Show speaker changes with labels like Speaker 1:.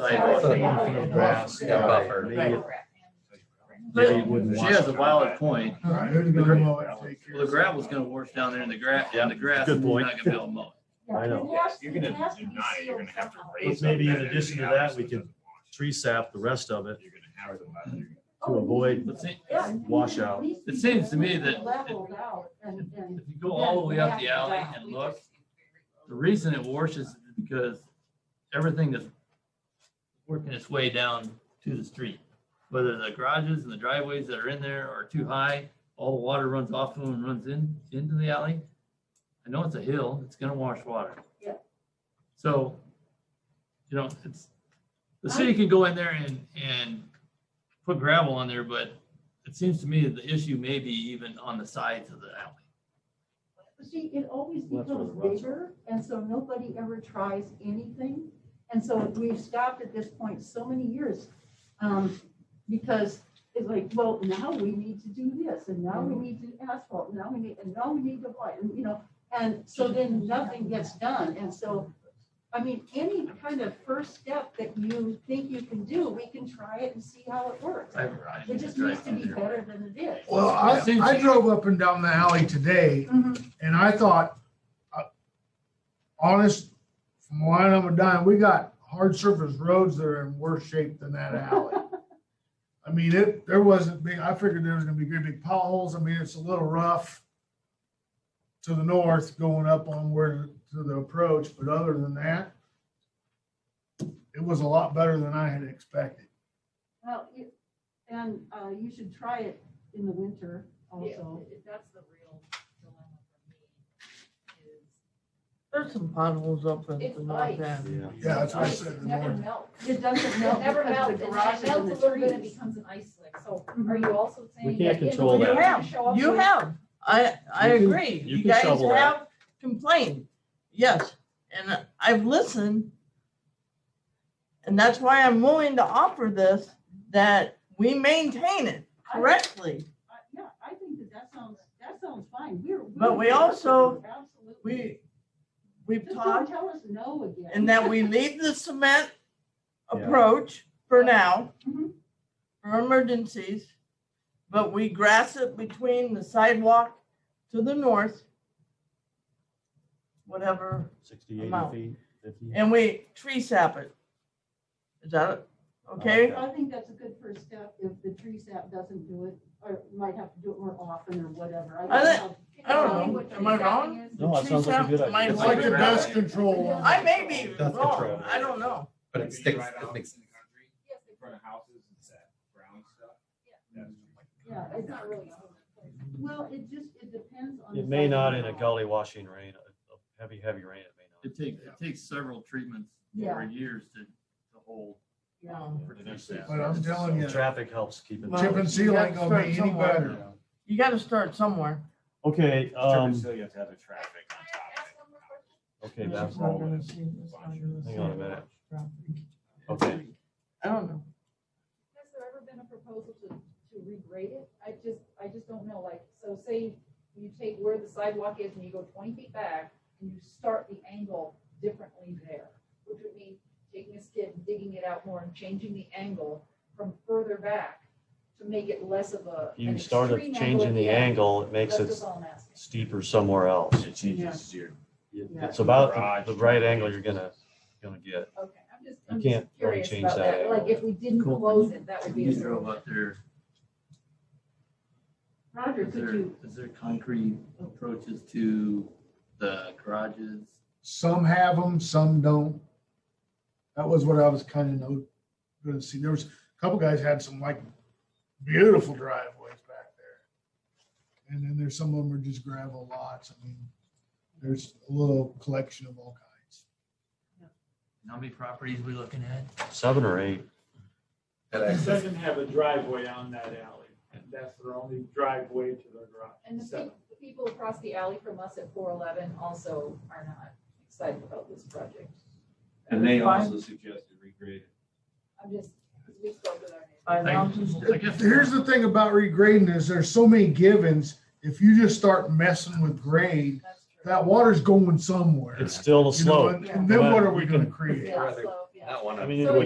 Speaker 1: sidewalk.
Speaker 2: Foot
Speaker 3: Yeah.
Speaker 2: and feet of grass.
Speaker 1: Yeah, buffer.
Speaker 2: Leave
Speaker 1: But
Speaker 2: it- wouldn't
Speaker 1: She
Speaker 2: want
Speaker 1: has a
Speaker 2: it.
Speaker 1: valid point. Well, the
Speaker 4: The
Speaker 1: gravel's gonna wash down there in the grass,
Speaker 2: Yeah,
Speaker 1: and the grass,
Speaker 2: good
Speaker 1: is not
Speaker 2: point.
Speaker 1: gonna be able to mow.
Speaker 2: I know.
Speaker 5: You're gonna deny it, you're gonna have to raise.
Speaker 2: But maybe in addition to that, we could- Tree sap, the rest of it to avoid
Speaker 1: But see,
Speaker 2: washout.
Speaker 1: it seems to me that
Speaker 3: Leveled out and, and.
Speaker 1: if you go all the way up the alley and look, the reason it washes is because everything is working its way down to the street. Whether the garages and the driveways that are in there are too high, all the water runs off of them and runs in, into the alley. I know it's a hill, it's gonna wash water.
Speaker 3: Yeah.
Speaker 1: So, you know, it's, the city can go in there and, and put gravel on there, but it seems to me that the issue may be even on the sides of the alley.
Speaker 3: See, it always
Speaker 2: Well, that's where
Speaker 3: becomes
Speaker 2: the ruts are.
Speaker 3: bigger, and so nobody ever tries anything. And so we've stopped at this point so many years, um, because it's like, well, now we need to do this, and now we need to asphalt, and now we need, and now we need to apply, and you know, and so then nothing gets done, and so, I mean, any kind of first step that you think you can do, we can try it and see how it works.
Speaker 1: I ride.
Speaker 3: It just needs to be better than it is.
Speaker 4: Well, I, I drove up and down the alley today
Speaker 3: Mhm.
Speaker 4: and I thought, uh, honest, from Wine on a dime, we got hard surface roads that are in worse shape than that alley. I mean, it, there wasn't big, I figured there was gonna be great big potholes. I mean, it's a little rough to the north going up on where, to the approach, but other than that, it was a lot better than I had expected.
Speaker 3: Well, you- and uh, you should try it in the winter also.
Speaker 6: That's the real dilemma for me is.
Speaker 7: There's some potholes up at
Speaker 6: It's
Speaker 7: the north
Speaker 6: ice.
Speaker 7: end.
Speaker 2: Yeah.
Speaker 4: Yeah, that's what I
Speaker 6: Ice
Speaker 4: said in the
Speaker 6: never
Speaker 4: morning.
Speaker 6: melts.
Speaker 3: It doesn't
Speaker 6: It
Speaker 3: melt
Speaker 6: never
Speaker 3: because
Speaker 6: melts,
Speaker 3: the
Speaker 6: and then
Speaker 3: garage
Speaker 6: it melts a
Speaker 3: is
Speaker 6: little bit, it
Speaker 3: in the trees.
Speaker 6: becomes an ice slick, so
Speaker 7: Mm-hmm.
Speaker 6: are
Speaker 3: Mhm.
Speaker 6: you also saying?
Speaker 2: We can't
Speaker 6: that in the
Speaker 2: control
Speaker 6: winter
Speaker 2: that.
Speaker 6: it's gonna show up
Speaker 7: You
Speaker 6: with-
Speaker 7: have, I, I
Speaker 2: You can-
Speaker 7: agree.
Speaker 2: you
Speaker 7: You
Speaker 2: can
Speaker 7: guys
Speaker 2: shovel that.
Speaker 7: have complained, yes, and I've listened. And that's why I'm willing to offer this, that we maintain it
Speaker 3: I-
Speaker 7: correctly.
Speaker 3: I- Yeah, I think that that sounds, that sounds fine. We're.
Speaker 7: But we
Speaker 3: we're-
Speaker 7: also-
Speaker 3: Absolutely.
Speaker 7: We, we've
Speaker 3: Just don't
Speaker 7: talked,
Speaker 3: tell us no again.
Speaker 7: and that we leave the cement
Speaker 2: Yeah.
Speaker 7: approach for now,
Speaker 3: Mhm.
Speaker 7: for emergencies. But we grass it between the sidewalk to the north. Whatever,
Speaker 2: Sixty, eighty
Speaker 7: Amount.
Speaker 2: feet, fifty.
Speaker 7: and we tree sap it. Is that it? okay?
Speaker 3: I think that's a good first step if the tree sap doesn't do it, or might have to do it more often or whatever.
Speaker 7: I
Speaker 3: don't
Speaker 7: think-
Speaker 3: know.
Speaker 7: I don't
Speaker 6: Knowing
Speaker 7: know.
Speaker 6: what
Speaker 7: Am I
Speaker 6: tree
Speaker 7: wrong?
Speaker 6: sapping is.
Speaker 2: No, it
Speaker 7: Tree
Speaker 2: sounds like a
Speaker 7: sap
Speaker 2: good
Speaker 7: might
Speaker 2: idea.
Speaker 4: It's like the dust control. on-
Speaker 7: I may be
Speaker 2: Dust control.
Speaker 7: wrong, I don't know.
Speaker 8: But it sticks, it makes.
Speaker 6: Yes,
Speaker 8: In front of houses, it's that brown stuff.
Speaker 3: Yeah, it's not really. Well, it just, it depends on.
Speaker 2: It
Speaker 3: the
Speaker 2: may
Speaker 3: size
Speaker 2: not
Speaker 3: of
Speaker 2: in
Speaker 3: the
Speaker 2: a
Speaker 3: house.
Speaker 2: gully washing rain, a- a heavy, heavy rain, it may not.
Speaker 1: It takes, it takes several treatments
Speaker 3: Yeah.
Speaker 1: over years to, to hold.
Speaker 3: Yeah.
Speaker 1: for
Speaker 2: It
Speaker 1: tree
Speaker 2: actually-
Speaker 1: sap.
Speaker 4: But I'm telling you.
Speaker 2: Traffic helps keep it.
Speaker 7: Well,
Speaker 4: Chip and seal ain't gonna be any better.
Speaker 7: You gotta start somewhere.
Speaker 2: Okay, um,
Speaker 8: Still, you have to have the traffic
Speaker 6: Can
Speaker 8: on top of it.
Speaker 6: I ask one more question?
Speaker 7: It's
Speaker 2: okay, that's
Speaker 7: not
Speaker 2: all.
Speaker 7: gonna
Speaker 2: it is.
Speaker 7: see- it's not gonna
Speaker 2: Hang on a
Speaker 7: see
Speaker 2: minute.
Speaker 7: much traffic.
Speaker 2: Okay,
Speaker 7: I don't know.
Speaker 6: Has there ever been a proposal to, to regrade it? I just, I just don't know, like, so say you take where the sidewalk is and you go twenty feet back and you start the angle differently there, which would mean taking a skid, and digging it out more and changing the angle from further back to make it less of a. an
Speaker 2: you started
Speaker 6: extreme angle
Speaker 2: changing
Speaker 6: at
Speaker 2: the
Speaker 6: end.
Speaker 2: angle, it makes
Speaker 6: That's
Speaker 2: it
Speaker 6: just all I'm asking.
Speaker 2: steeper somewhere else.
Speaker 8: It changes your.
Speaker 2: It's about the the right angle you're gonna, gonna get.
Speaker 6: Okay, I'm just,
Speaker 2: You
Speaker 6: I'm
Speaker 2: can't
Speaker 6: just
Speaker 2: really
Speaker 6: curious
Speaker 2: change
Speaker 6: about
Speaker 2: that
Speaker 6: that,
Speaker 2: angle.
Speaker 6: like, if we didn't
Speaker 1: Cool.
Speaker 6: close it, that would be. a
Speaker 1: You drove
Speaker 6: solution.
Speaker 1: up there,
Speaker 3: Roger,
Speaker 1: is
Speaker 3: could
Speaker 1: there,
Speaker 3: you,
Speaker 1: is there concrete approaches to the garages?
Speaker 4: Some have them, some don't. That was what I was kind of gonna see. There was a couple guys had some like beautiful driveways back there. And then there's some of them are just gravel lots. I mean, there's a little collection of all kinds.
Speaker 1: How many properties we looking at?
Speaker 2: Seven or eight,
Speaker 8: That
Speaker 9: It
Speaker 8: access.
Speaker 9: doesn't have a driveway on that alley. That's their only driveway to their garage.
Speaker 6: And the
Speaker 9: Seven.
Speaker 6: people, the people across the alley from us at four eleven also are not excited about this project.
Speaker 8: And they
Speaker 7: Fine.
Speaker 8: also suggested regrade.
Speaker 6: I'm just, we spoke with our neighbors.
Speaker 7: Five
Speaker 1: I-
Speaker 7: houses.
Speaker 1: I guess-
Speaker 4: Here's the thing about regrading is there's so many givens. If you just start messing with grade,
Speaker 6: That's true.
Speaker 4: that water's going somewhere.
Speaker 2: it's still
Speaker 4: You know,
Speaker 2: a slope.
Speaker 4: and- And then what are we gonna create?
Speaker 6: Yeah, so, yeah.
Speaker 8: That one.
Speaker 2: I mean,
Speaker 6: So
Speaker 2: it